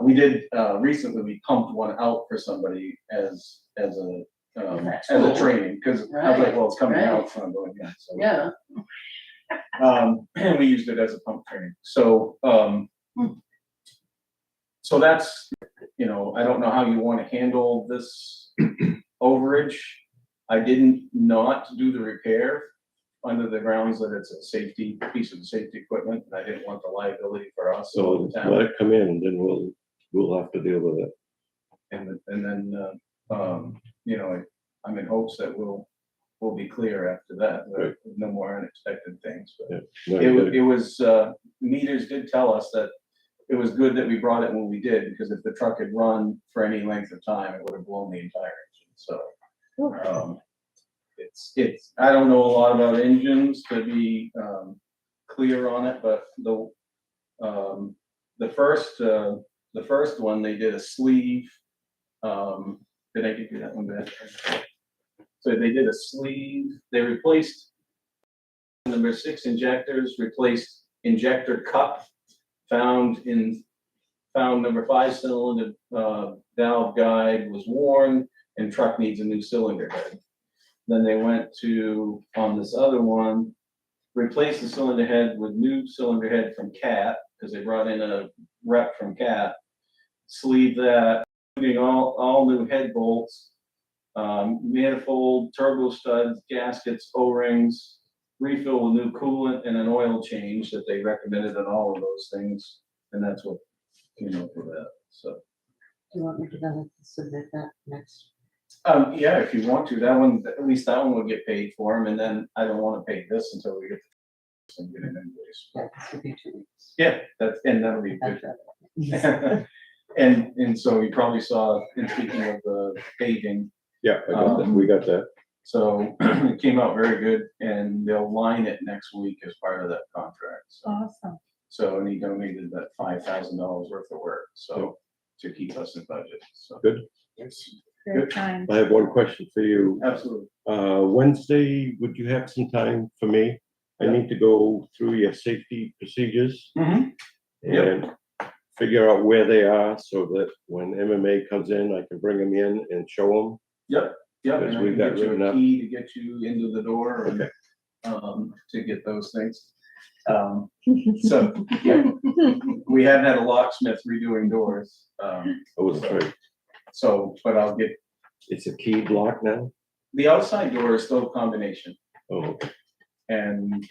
we did, uh, recently, we pumped one out for somebody as, as a, um, That's as a cool. training, cause I was like, well, it's coming out, right. so I'm going, yeah, so. Yeah, Um, and we used it as a pump training, so, um. Hmm. So that's, you know, I don't know how you wanna handle this overage. I didn't not do the repair under the grounds that it's a safety, piece of safety equipment, and I didn't want the liability for us. So or the town. let it come in and then we'll, we'll have to deal with it. And, th- and then, uh, um, you know, I'm in hopes that we'll, we'll be clear after that, Right. that no more unexpected things, but. No, It you was, gotta- it was, uh, meters did tell us that it was good that we brought it when we did, because if the truck had run for any length of time, it would have blown the entire engine, so. um, It's, it's, I don't know a lot about engines to be, um, clear on it, but the, um, the first, uh, the first one, they did a sleeve. Um, did I give you that one back? So they did a sleeve, they replaced Number six, injectors replaced injector cup found in, found number five cylinder, uh, valve guide was worn and truck needs a new cylinder head. Then they went to, on this other one, replace the cylinder head with new cylinder head from Cat, because they brought in a rep from Cat. Sleeve that, including all, all new head bolts, um, manifold, turbo studs, gaskets, O-rings, refill with new coolant and an oil change that they recommended and all of those things. And that's what came up with that, so. Do you want me to go submit that next? Um, yeah, if you want to, that one, at least that one would get paid for them, and then I don't wanna pay this until we get the and get an invoice. Yeah, this would be two weeks. Yeah, that's, and that'll be That's good. right. And, and so you probably saw, in speaking of uh, the paving, Yeah, I got that, um, we got that. so it came out very good, and they'll line it next week as part of that contract, so. Awesome. So, and he donated that five thousand dollars worth of work, so, to keep us in budget, so. Good. Very kind. I have one question for you. Absolutely. Uh, Wednesday, would you have some time for me? I Yeah. need to go through your safety procedures Mm-hmm. Yep. and figure out where they are so that when MMA comes in, I can bring them in and show Yep, Because and I we've can got get you written a up. key to get you into the door and, Okay. um, to get those things. Um, so, yeah, we have had a locksmith redoing doors, um, them. I was sorry, so, but I'll get, Oh, it's a key block now? the outside door is still a combination, Oh, and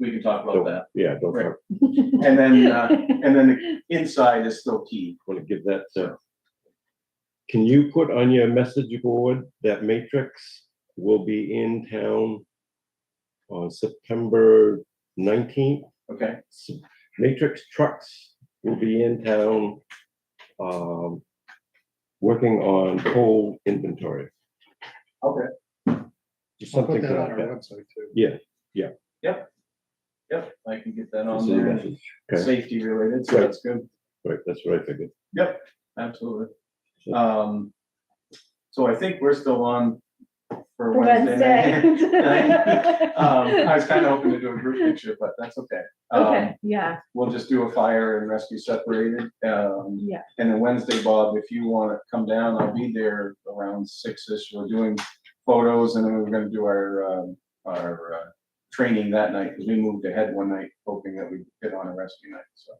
we can talk about don't, that. yeah, don't Right. And then, uh, and then the inside is still keyed. want to give that to. Can you put on your message board that Matrix will be in town on September nineteenth? okay? Matrix trucks will be in town, um, working on coal inventory. Okay. Just I'll put something that on like our that. website too. Yeah, Yep, I can get that on just a there. message. Okay. safety related, so Right. that's good, Right, that's what I figured. absolutely. Sure. Um, so I think we're still on for Wednesday. night. Wednesday. Um, I was kind of hoping to do a group picture, but that's okay. Um, Okay, yeah, we'll just do a fire and rescue separated, um, yeah, and then Wednesday, Bob, if you wanna come down, I'll be there around six-ish, we're doing photos, and then we're gonna do our, um, our, uh, training that night, because we moved ahead one night, hoping that we'd get on a rescue night, so.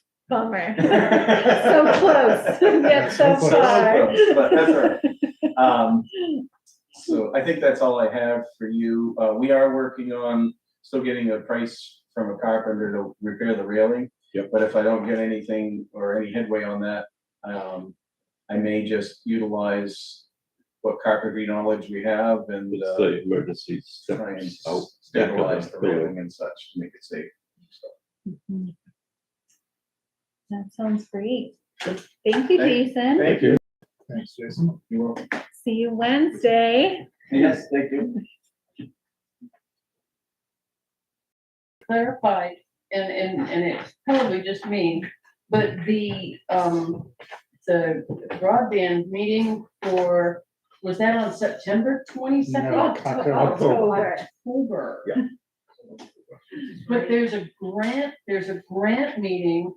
bummer. So close, yet so So far. close, But that's all right. Um, so I think that's all I have for you. Uh, we are working on still getting a price from a carpenter to repair the railing. Yep. But if I don't get anything or any headway on that, um, I may just utilize what carpentry knowledge we have and, It's uh, the emergency try and steps out. back of the stabilize the building. railing and such to make it safe. So, Mhm. That sounds great. Thank you, Thank- Jason. Thank you. Thanks, Jason. You're welcome. See you Wednesday. Yes, thank you. clarified, and, and, and it's probably just me, but the, um, the broadband meeting for, was that on September twenty-second? No, October. Oh. October. Yeah. But there's a grant, there's a grant meeting